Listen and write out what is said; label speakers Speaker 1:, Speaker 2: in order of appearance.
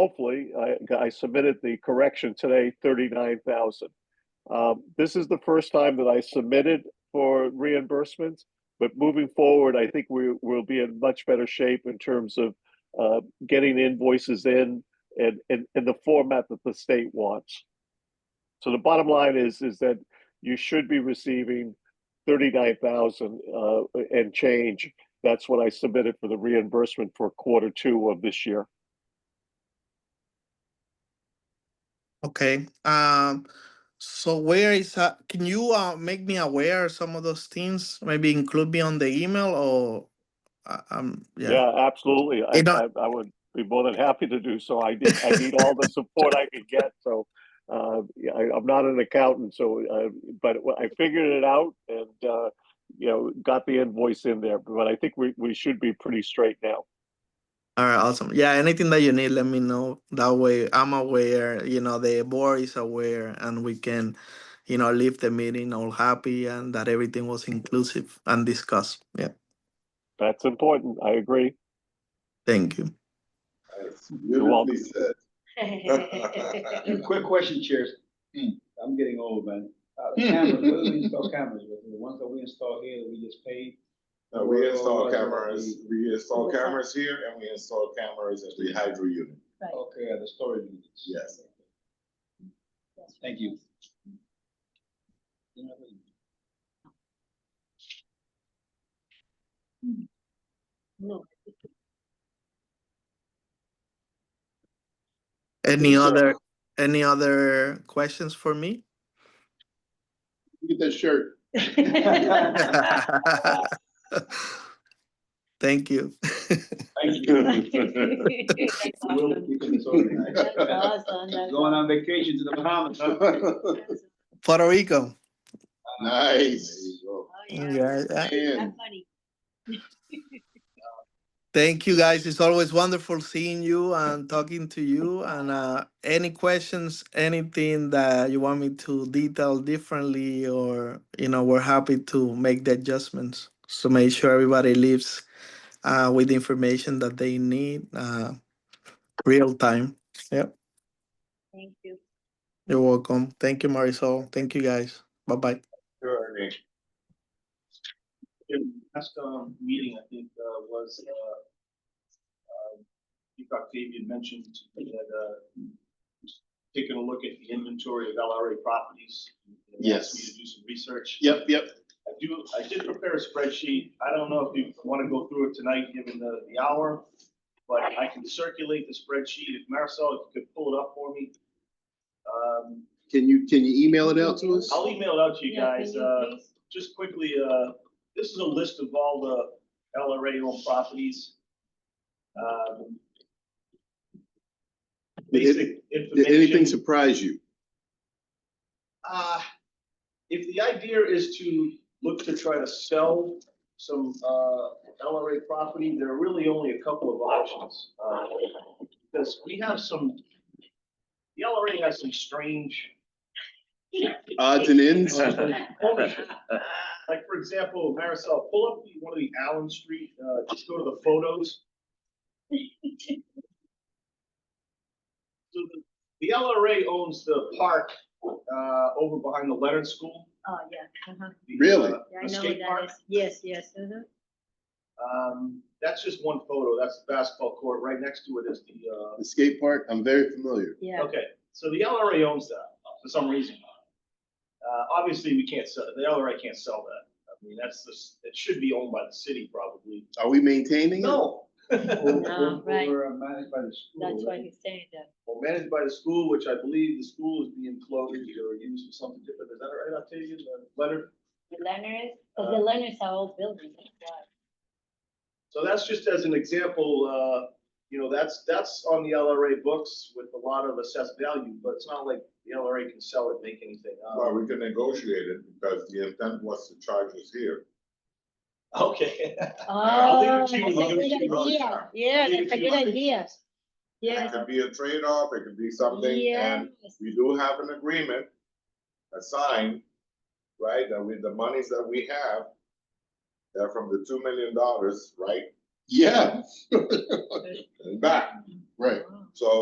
Speaker 1: hopefully, I, I submitted the correction today, thirty-nine thousand. Um, this is the first time that I submitted for reimbursements, but moving forward, I think we will be in much better shape in terms of uh, getting the invoices in and, and, and the format that the state wants. So the bottom line is, is that you should be receiving thirty-nine thousand uh, and change. That's what I submitted for the reimbursement for quarter two of this year.
Speaker 2: Okay, um, so where is, that- can you, uh, make me aware of some of those things? Maybe include me on the email or, uh, um, yeah.
Speaker 1: Yeah, absolutely. I,
Speaker 2: You know-
Speaker 1: I, I would be more than happy to do so. I need, I need all the support I could get, so. Uh, yeah, I, I'm not an accountant, so, uh, but I figured it out and, uh, you know, got the invoice in there, but I think we, we should be pretty straight now.
Speaker 2: All right, awesome. Yeah, anything that you need, let me know. That way I'm aware, you know, the board is aware and we can, you know, leave the meeting all happy and that everything was inclusive and discussed. Yeah,
Speaker 1: That's important. I agree.
Speaker 2: thank you.
Speaker 3: That's
Speaker 1: welcome.
Speaker 3: Beautifully said.
Speaker 4: Thank
Speaker 5: Quick question, Chair.
Speaker 3: Mm.
Speaker 5: I'm getting old, man. Uh, cameras, where do we install cameras? with? The ones that we install here, that we just paid?
Speaker 3: Uh, we install cameras, we install cameras here and we install cameras at the hydro unit.
Speaker 5: Okay, uh, the storage units.
Speaker 3: Yes.
Speaker 5: Thank you.
Speaker 4: No.
Speaker 2: Any
Speaker 3: Sure.
Speaker 2: other, any other questions for me?
Speaker 3: Get that shirt.
Speaker 2: Thank you.
Speaker 5: Thank you.
Speaker 4: That's
Speaker 5: We'll
Speaker 4: awesome.
Speaker 5: keep it organized.
Speaker 4: That's awesome. That's
Speaker 5: Going on vacation to the Bahamas. huh?
Speaker 4: awesome.
Speaker 2: Puerto Rico.
Speaker 5: There
Speaker 3: Nice.
Speaker 5: you go.
Speaker 4: Oh, yeah.
Speaker 2: Yeah, yeah.
Speaker 3: And
Speaker 4: Have money.
Speaker 2: Thank you, guys. It's always wonderful seeing you and talking to you. And uh, any questions, anything that you want me to detail differently, or you know, we're happy to make the adjustments. So make sure everybody leaves uh, with the information that they need uh, real time.
Speaker 4: Thank you.
Speaker 2: You're welcome. Thank you, Marisol. Thank you, guys. Bye bye.
Speaker 3: Sure, Ernie.
Speaker 5: Last, um, meeting, I think, uh, was, uh, um, I think Octavian mentioned that, uh, taking a look at the inventory of LRA properties. and asked Me
Speaker 3: Yes.
Speaker 5: to do some research.
Speaker 3: Yep, yep.
Speaker 5: I do, I did prepare a spreadsheet. I don't know if you want to go through it tonight, given the, the hour. But I can circulate the spreadsheet. If Marisol, if you could pull it up for me. Um,
Speaker 3: Can you, can you email
Speaker 4: it out to us?
Speaker 5: I'll email it out to you
Speaker 4: Yeah, can
Speaker 5: guys. Uh,
Speaker 4: please?
Speaker 5: just quickly, uh, this is a list of all the LRA owned properties. Um, Basic information.
Speaker 3: surprise you?
Speaker 5: Uh, if the idea is to look to try to sell some, uh, LRA property, there are really only a couple of options. Uh, Because we have some, the LRA has some strange
Speaker 3: Odds and ends?
Speaker 5: ownership. Like, for example, Marisol, pull up the- one of the Allen Street, uh, just go to the photos. So the, the LRA owns the park, uh, over behind the Leonard School.
Speaker 4: Oh, yeah. uh-huh.
Speaker 5: the,
Speaker 3: Really?
Speaker 5: uh,
Speaker 4: Yeah, I
Speaker 5: The
Speaker 4: know what
Speaker 5: skate
Speaker 4: that
Speaker 5: park.
Speaker 4: is. Yes, yes. uh-huh.
Speaker 5: Um, that's just one photo. That's the basketball court. Right next to it is the,
Speaker 3: The skate park, I'm very familiar.
Speaker 5: uh,
Speaker 4: Yeah.
Speaker 5: okay, so the LRA owns that for some reason. Uh, obviously, we can't sell, the LRA can't sell that. I mean, that's the, s- it should be owned by the city probably.
Speaker 3: Are we maintaining it?
Speaker 5: No, Well,
Speaker 4: No, right.
Speaker 5: Or uh, managed by the school.
Speaker 4: That's why
Speaker 5: right?
Speaker 4: he's saying that.
Speaker 5: Or managed by the school, which I believe the school is being closed or used for something different. Is that right, Octavian, Uh, Leonard?
Speaker 4: The Leonards, because the Leonards are old buildings. that's why.
Speaker 5: So that's just as an example, uh, you know, that's, that's on the LRA books with a lot of assessed value, but it's not like the LRA can sell it, make anything. out
Speaker 3: Well,
Speaker 5: of
Speaker 3: we can negotiate it because the intent was to charge us here.
Speaker 5: it. Okay.
Speaker 4: Oh,
Speaker 5: leave it
Speaker 4: that's
Speaker 5: to
Speaker 4: a
Speaker 5: you.
Speaker 4: good
Speaker 5: Leave it to you.
Speaker 4: idea. Yeah,
Speaker 5: Leave it
Speaker 4: that's a
Speaker 5: to you.
Speaker 4: good idea.
Speaker 3: It
Speaker 4: Yes.
Speaker 3: could be a trade-off, it could be something, and
Speaker 4: yes.
Speaker 3: we do have an agreement, a sign, right, that with the monies that we have, they're from the two million dollars, right? Yeah. And back, right,
Speaker 4: Wow.
Speaker 3: so